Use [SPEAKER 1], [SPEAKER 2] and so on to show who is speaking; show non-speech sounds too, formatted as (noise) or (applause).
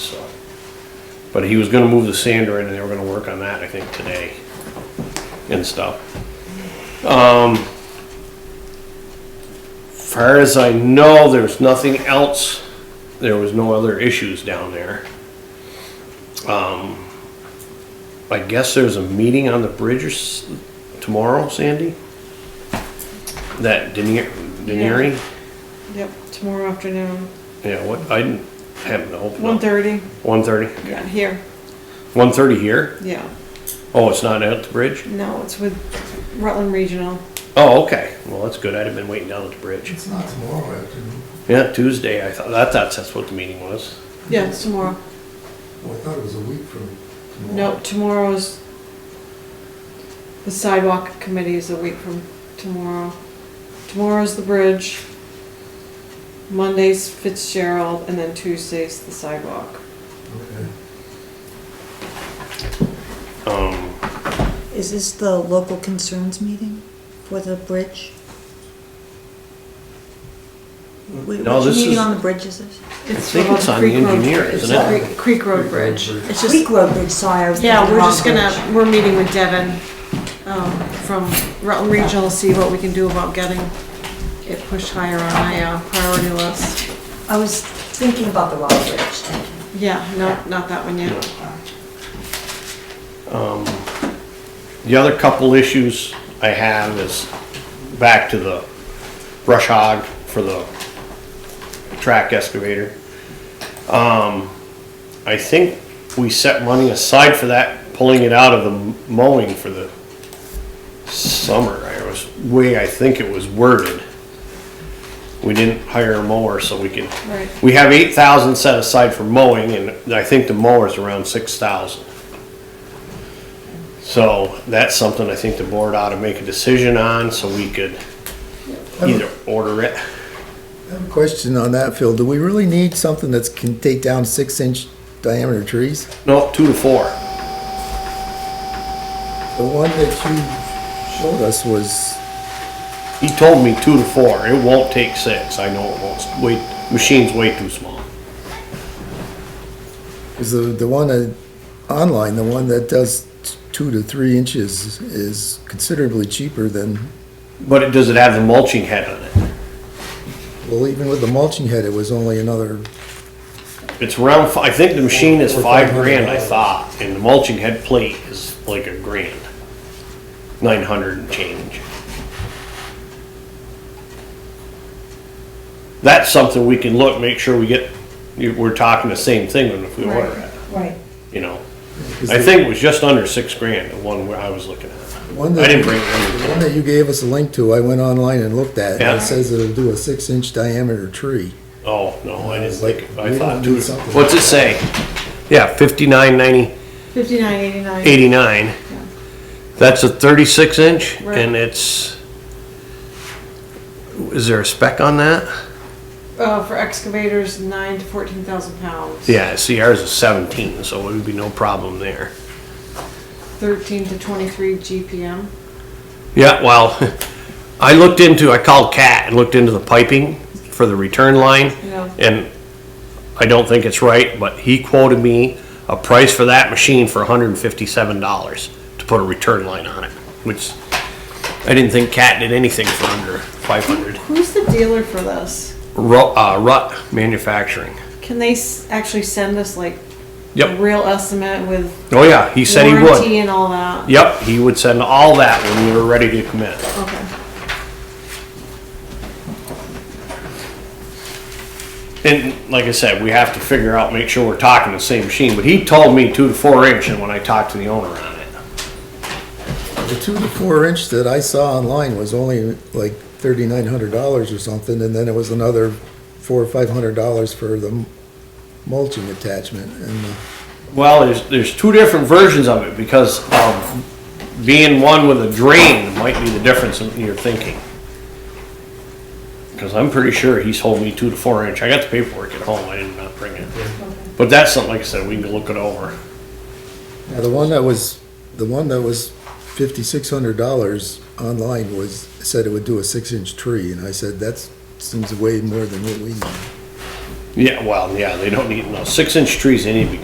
[SPEAKER 1] But he was gonna move the sander in and they were gonna work on that, I think, today and stuff. Um, far as I know, there's nothing else, there was no other issues down there. Um, I guess there's a meeting on the bridge or s- tomorrow, Sandy? That Denier, Denieri?
[SPEAKER 2] Yep, tomorrow afternoon,
[SPEAKER 1] Yeah, what, I didn't have the open.
[SPEAKER 2] one thirty,
[SPEAKER 1] One thirty,
[SPEAKER 2] yeah, here,
[SPEAKER 1] one thirty here?
[SPEAKER 2] yeah.
[SPEAKER 1] Oh, it's not at the bridge?
[SPEAKER 2] No, it's with Rutland Regional.
[SPEAKER 1] Oh, okay, well, that's good, I'd have been waiting down at the bridge.
[SPEAKER 3] It's not tomorrow afternoon.
[SPEAKER 1] Yeah, Tuesday, I thought, I thought that's what the meeting was.
[SPEAKER 2] Yeah, it's tomorrow.
[SPEAKER 3] Well, oh, I thought it was a week from tomorrow.
[SPEAKER 2] No, tomorrow's, the sidewalk committee is a week from tomorrow. Tomorrow's the bridge. Monday's Fitzgerald, and then Tuesday's the sidewalk.
[SPEAKER 3] Okay.
[SPEAKER 1] Um,
[SPEAKER 4] Is this the local concerns meeting for the bridge? Wh-
[SPEAKER 1] No,
[SPEAKER 4] Which
[SPEAKER 1] this
[SPEAKER 4] meeting
[SPEAKER 1] is-
[SPEAKER 4] on the bridge is this?
[SPEAKER 2] It's
[SPEAKER 1] think
[SPEAKER 2] about
[SPEAKER 1] it's
[SPEAKER 2] the
[SPEAKER 1] on the
[SPEAKER 2] Creek Road-
[SPEAKER 1] engineer,
[SPEAKER 2] it's
[SPEAKER 1] isn't
[SPEAKER 2] the
[SPEAKER 3] it?
[SPEAKER 2] Creek- Creek Road Bridge.
[SPEAKER 4] It's just. Creek Road Bridge, sorry, I was.
[SPEAKER 2] Yeah,
[SPEAKER 4] thinking
[SPEAKER 2] we're
[SPEAKER 4] wrong
[SPEAKER 2] just gonna,
[SPEAKER 4] bridge.
[SPEAKER 2] we're meeting with Devin, um, from Rutland Regional, see what we can do about getting it pushed higher on my uh, priority list.
[SPEAKER 4] I was thinking about the wrong bridge, thank you.
[SPEAKER 2] Yeah, no, not that one yet.
[SPEAKER 1] Um, The other couple issues I have is back to the brush hog for the track excavator. Um, I think we set money aside for that, pulling it out of the mowing for the summer. I was, way I think it was worded. We didn't hire a mower, so we could.
[SPEAKER 2] Right.
[SPEAKER 1] We have eight thousand set aside for mowing, and I think the mower's around six thousand. So that's something I think the board ought to make a decision on, so we could either order it.
[SPEAKER 3] I have a question on that, Phil. Do we really need something that's can take down six inch diameter trees?
[SPEAKER 1] No, two to four.
[SPEAKER 3] The one that you showed us was,
[SPEAKER 1] He told me two to four. It won't take six. I know it won't. Wait, machine's way too small.
[SPEAKER 3] is the, the one that, online, the one that does t- two to three inches is considerably cheaper than,
[SPEAKER 1] But it, does it have the mulching head on it?
[SPEAKER 3] well, even with the mulching head, it was only another,
[SPEAKER 1] It's around, fi- I think the machine is
[SPEAKER 3] Or
[SPEAKER 1] five
[SPEAKER 3] $500.
[SPEAKER 1] grand, I thought, and the mulching head plate is like a grand. Nine hundred and change. That's something we can look, make sure we get, you- we're talking the same thing when if we order
[SPEAKER 2] Right.
[SPEAKER 1] it,
[SPEAKER 4] Right.
[SPEAKER 1] you know?
[SPEAKER 3] Is
[SPEAKER 1] I
[SPEAKER 3] the-
[SPEAKER 1] think it was just under six grand, the one where I was looking at.
[SPEAKER 3] One
[SPEAKER 1] I
[SPEAKER 3] that,
[SPEAKER 1] didn't bring it
[SPEAKER 3] the one that you gave us a link to, I went online and looked at, and
[SPEAKER 1] Yeah.
[SPEAKER 3] it says it'll do a six inch diameter tree.
[SPEAKER 1] Oh, no, I didn't
[SPEAKER 3] Like,
[SPEAKER 1] think, it- I
[SPEAKER 3] we
[SPEAKER 1] thought
[SPEAKER 3] don't
[SPEAKER 1] two,
[SPEAKER 3] need something.
[SPEAKER 1] what's it say? Yeah, fifty-nine ninety,
[SPEAKER 2] Fifty-nine eighty-nine,
[SPEAKER 1] eighty-nine. That's a thirty-six inch
[SPEAKER 2] Right.
[SPEAKER 1] and it's, is there a spec on that?
[SPEAKER 2] uh, for excavators, nine to fourteen thousand pounds.
[SPEAKER 1] Yeah, see ours is seventeen, so it would be no problem there.
[SPEAKER 2] Thirteen to twenty-three GPM.
[SPEAKER 1] Yeah, well, (laughs) I looked into, I called Cat and looked into the piping for the return line.
[SPEAKER 2] Yeah.
[SPEAKER 1] And I don't think it's right, but he quoted me a price for that machine for hundred and fifty-seven dollars to put a return line on it, which I didn't think Cat did anything for under five hundred.
[SPEAKER 2] Who's the dealer for this?
[SPEAKER 1] Rut, uh, Rut Manufacturing.
[SPEAKER 2] Can they s- actually send us like a
[SPEAKER 1] Yep.
[SPEAKER 2] real estimate with
[SPEAKER 1] Oh, yeah, he said he
[SPEAKER 2] warranty
[SPEAKER 1] would.
[SPEAKER 2] and all that?
[SPEAKER 1] Yep, he would send all that when we were ready to commit.
[SPEAKER 2] Okay.
[SPEAKER 1] And like I said, we have to figure out, make sure we're talking the same machine, but he told me two to four inch and when I talked to the owner on it.
[SPEAKER 3] The two to four inch that I saw online was only like thirty-nine hundred dollars or something, and then it was another four or five hundred dollars for the m- mulching attachment, and uh,
[SPEAKER 1] Well, there's, there's two different versions of it because, um, being one with a drain might be the difference in your thinking. Cause I'm pretty sure he's holding me two to four inch. I got the paperwork at home. I did not bring it. But that's something, like I said, we can look it over.
[SPEAKER 3] now uh, the one that was, the one that was fifty-six hundred dollars online was, said it would do a six-inch tree, and I said, that's, seems way more than what we need.
[SPEAKER 1] Yeah, well, yeah, they don't need, no, six inch trees, they need to be